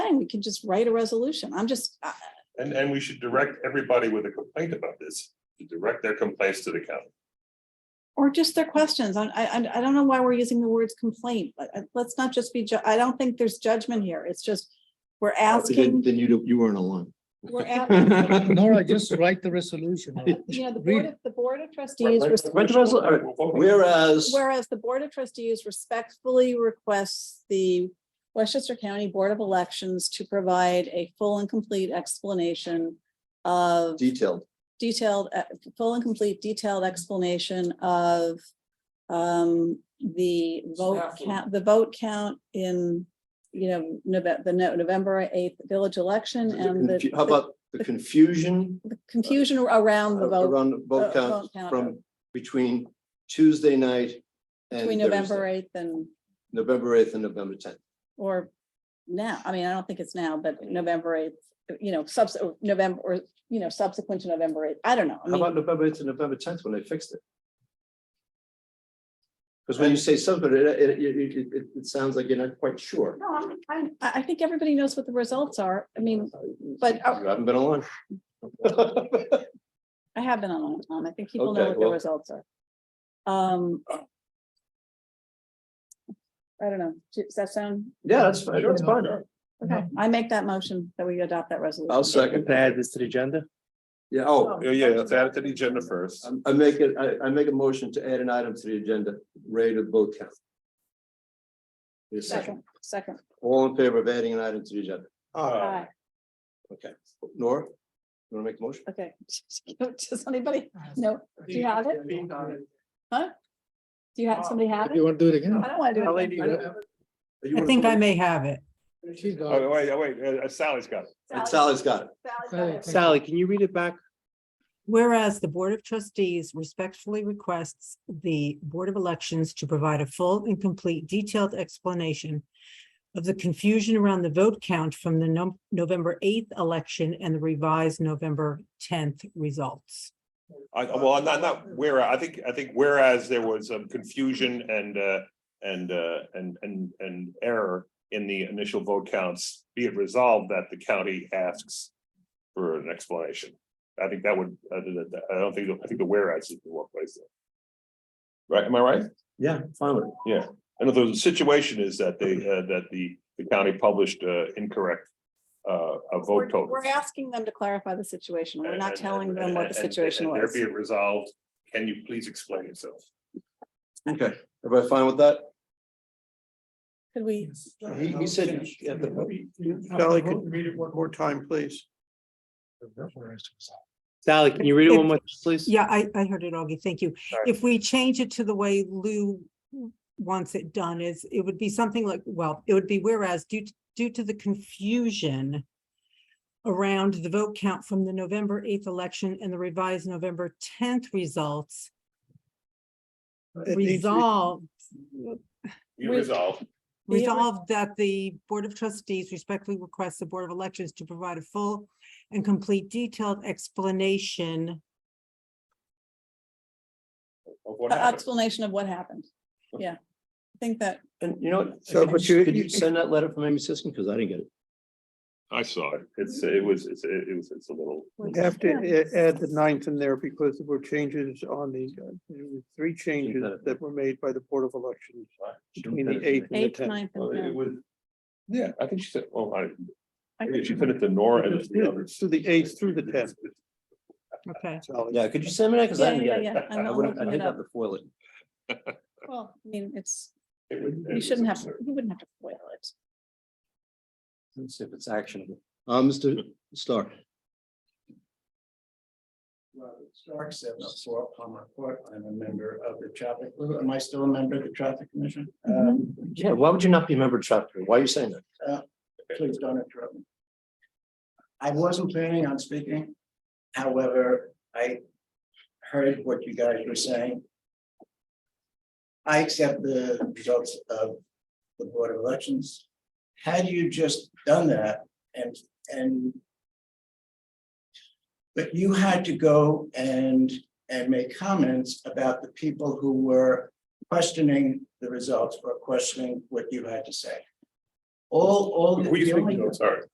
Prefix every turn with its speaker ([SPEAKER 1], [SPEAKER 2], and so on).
[SPEAKER 1] fine, we can just write a resolution. I'm just, uh, I-
[SPEAKER 2] And, and we should direct everybody with a complaint about this, to direct their complaints to the county.
[SPEAKER 1] or just their questions. I, I, I- I don't know why we're using the words complaint, but uh, let's not just be, ju- I don't think there's judgment here. It's just, we're
[SPEAKER 3] Then
[SPEAKER 1] asking,
[SPEAKER 3] then you, don't- you weren't alone.
[SPEAKER 1] we're asking,
[SPEAKER 4] Nora, just write the resolution.
[SPEAKER 1] you know, the
[SPEAKER 4] Read
[SPEAKER 1] board of, the board of trustees. res-
[SPEAKER 3] Whereas,
[SPEAKER 1] Whereas the Board of Trustees respectfully requests the Westchester County Board of Elections to provide a full and complete explanation of
[SPEAKER 3] detailed,
[SPEAKER 1] detailed, uh, full and complete detailed explanation of um, the vote
[SPEAKER 5] Staffing.
[SPEAKER 1] count, the vote count in, you know, Nove- the No- November eighth village election and
[SPEAKER 3] The
[SPEAKER 1] the
[SPEAKER 3] confu- how about the confusion
[SPEAKER 1] the confusion around the vote
[SPEAKER 3] around the vote
[SPEAKER 1] uh,
[SPEAKER 3] count
[SPEAKER 1] vote count.
[SPEAKER 3] from between Tuesday night and
[SPEAKER 1] between
[SPEAKER 3] Thursday,
[SPEAKER 1] November eighth and
[SPEAKER 3] November eighth and November tenth.
[SPEAKER 1] or now, I mean, I don't think it's now, but November eighth, you know, subs, or November, or, you know, subsequent to November eighth, I don't know. I
[SPEAKER 3] How about
[SPEAKER 1] mean,
[SPEAKER 3] November eighth and November tenth when they fixed it? Because when you say something, it, it, it, it- it, it sounds like you're not quite sure.
[SPEAKER 1] no, I'm- I'm- I, I think everybody knows what the results are. I mean, but uh,
[SPEAKER 3] You haven't been along.
[SPEAKER 1] I have been on, on, I think people know
[SPEAKER 3] Okay,
[SPEAKER 1] what the
[SPEAKER 3] well-
[SPEAKER 1] results are. Um. I don't know, does that sound,
[SPEAKER 3] Yeah, that's fine, that's fine.
[SPEAKER 1] okay, I make that motion that we adopt that resolution.
[SPEAKER 3] I'll second.
[SPEAKER 4] Can I add this to the agenda?
[SPEAKER 3] Yeah, oh,
[SPEAKER 2] Yeah, yeah, let's add it to the agenda first.
[SPEAKER 3] I- I make it, I, I make a motion to add an item to the agenda, rate of vote count. Need a second.
[SPEAKER 1] Second, second,
[SPEAKER 3] All in favor of adding an item to the agenda?
[SPEAKER 2] Uh,
[SPEAKER 1] aye,
[SPEAKER 3] Okay. Nora? You want to make a motion?
[SPEAKER 1] okay. Does anybody, no, do you have it? Do you have, somebody have it?
[SPEAKER 4] You want to do it again?
[SPEAKER 1] I don't want to do it. again.
[SPEAKER 3] Or you
[SPEAKER 6] I
[SPEAKER 3] wanna
[SPEAKER 6] think I
[SPEAKER 3] vote?
[SPEAKER 6] may have it.
[SPEAKER 4] She's got
[SPEAKER 2] Oh,
[SPEAKER 4] it.
[SPEAKER 2] wait, oh, wait, uh, Sally's got it.
[SPEAKER 3] And Sally's got it.
[SPEAKER 1] Sally's got it.
[SPEAKER 4] Sally, can you read it back?
[SPEAKER 6] Whereas the Board of Trustees respectfully requests the Board of Elections to provide a full and complete detailed explanation of the confusion around the vote count from the Nov- November 8th election and the revised November 10th results.
[SPEAKER 2] I, well, not, not where, I think, I think whereas there was some confusion and, uh, and, uh, and, and, and error in the initial vote counts, be it resolved that the county asks for an explanation. I think that would, I don't- I don't think, I think the whereas is the one place. there. Right, am I right?
[SPEAKER 3] Yeah, finally.
[SPEAKER 2] And if the situation is that they, uh, that the, the county published, uh, incorrect, uh, a
[SPEAKER 1] We're
[SPEAKER 2] vote total.
[SPEAKER 1] we're asking them to clarify the situation. We're not
[SPEAKER 2] And-
[SPEAKER 1] telling them
[SPEAKER 2] and-
[SPEAKER 1] what the
[SPEAKER 2] and- and-
[SPEAKER 1] situation
[SPEAKER 2] and
[SPEAKER 1] was.
[SPEAKER 2] There be it resolved, can you please explain yourself?
[SPEAKER 3] Okay, everybody fine with that?
[SPEAKER 1] Could we,
[SPEAKER 3] He, he said.
[SPEAKER 7] Sally, could you read it one more time, please?
[SPEAKER 4] Sally, can you read it one more, time, please?
[SPEAKER 6] Yeah, I, I heard it, Augie. Thank you.
[SPEAKER 2] Sorry.
[SPEAKER 6] If we change it to the way Lou wants it done is, it would be something like, well, it would be whereas due, t- due to the confusion around the vote count from the November eighth election and the revised November tenth results,
[SPEAKER 7] It needs to be-
[SPEAKER 6] resolve,
[SPEAKER 2] You
[SPEAKER 1] We-
[SPEAKER 2] resolve,
[SPEAKER 1] Yeah, we-
[SPEAKER 6] resolve that the Board of Trustees respectfully requests the Board of Elections to provide a full and complete detailed explanation
[SPEAKER 2] of what
[SPEAKER 1] a-
[SPEAKER 2] happened.
[SPEAKER 1] explanation of what happened? Yeah. I think that,
[SPEAKER 3] And you know, what?
[SPEAKER 7] So,
[SPEAKER 3] could
[SPEAKER 7] but
[SPEAKER 3] you,
[SPEAKER 7] you-
[SPEAKER 3] could you
[SPEAKER 7] you-
[SPEAKER 3] send that letter from Amy Siskin? Because I didn't get it.
[SPEAKER 2] I saw it. It's, it was, it's, it was, it's a little.
[SPEAKER 7] You Have to a- add the ninth in there because there were changes on the, uh, there were three changes that were made by the Board of Elections. Between the eighth and the
[SPEAKER 1] eighth,
[SPEAKER 7] tenth.
[SPEAKER 1] ninth, and tenth.
[SPEAKER 2] was. Yeah, I think she said, oh, I,
[SPEAKER 1] I
[SPEAKER 2] maybe she put it to Nora and the others.
[SPEAKER 7] To the eighth through the tenth,
[SPEAKER 6] Okay.
[SPEAKER 7] Sally.
[SPEAKER 3] Yeah, could you send me that? Because I
[SPEAKER 1] Yeah,
[SPEAKER 3] didn't
[SPEAKER 1] yeah,
[SPEAKER 3] get it.
[SPEAKER 1] yeah. I'm
[SPEAKER 3] I
[SPEAKER 1] not
[SPEAKER 3] would, I
[SPEAKER 1] looking
[SPEAKER 3] did
[SPEAKER 1] it
[SPEAKER 3] have
[SPEAKER 1] up.
[SPEAKER 3] to foil it.
[SPEAKER 1] Well, I mean, it's,
[SPEAKER 2] It was- it
[SPEAKER 1] you
[SPEAKER 2] was
[SPEAKER 1] shouldn't have,
[SPEAKER 2] absurd.
[SPEAKER 1] you wouldn't have to foil it.
[SPEAKER 3] Let's see if it's actionable. Uh, Mr. Stark.
[SPEAKER 8] Robert Stark, seven oh four Palmer Court. I'm a member of the traffic, am I still a member of the traffic commission? Uh,
[SPEAKER 3] Yeah, why would you not be a member of chapter? Why are you saying that?
[SPEAKER 8] Please don't interrupt me. I wasn't planning on speaking. However, I heard what you guys were saying. I accept the results of the Board of Elections. Had you just done that and, and but you had to go and, and make comments about the people who were questioning the results or questioning what you had to say. all, all.
[SPEAKER 2] What do you
[SPEAKER 8] the
[SPEAKER 2] think,
[SPEAKER 8] only-
[SPEAKER 2] Joe? Sorry.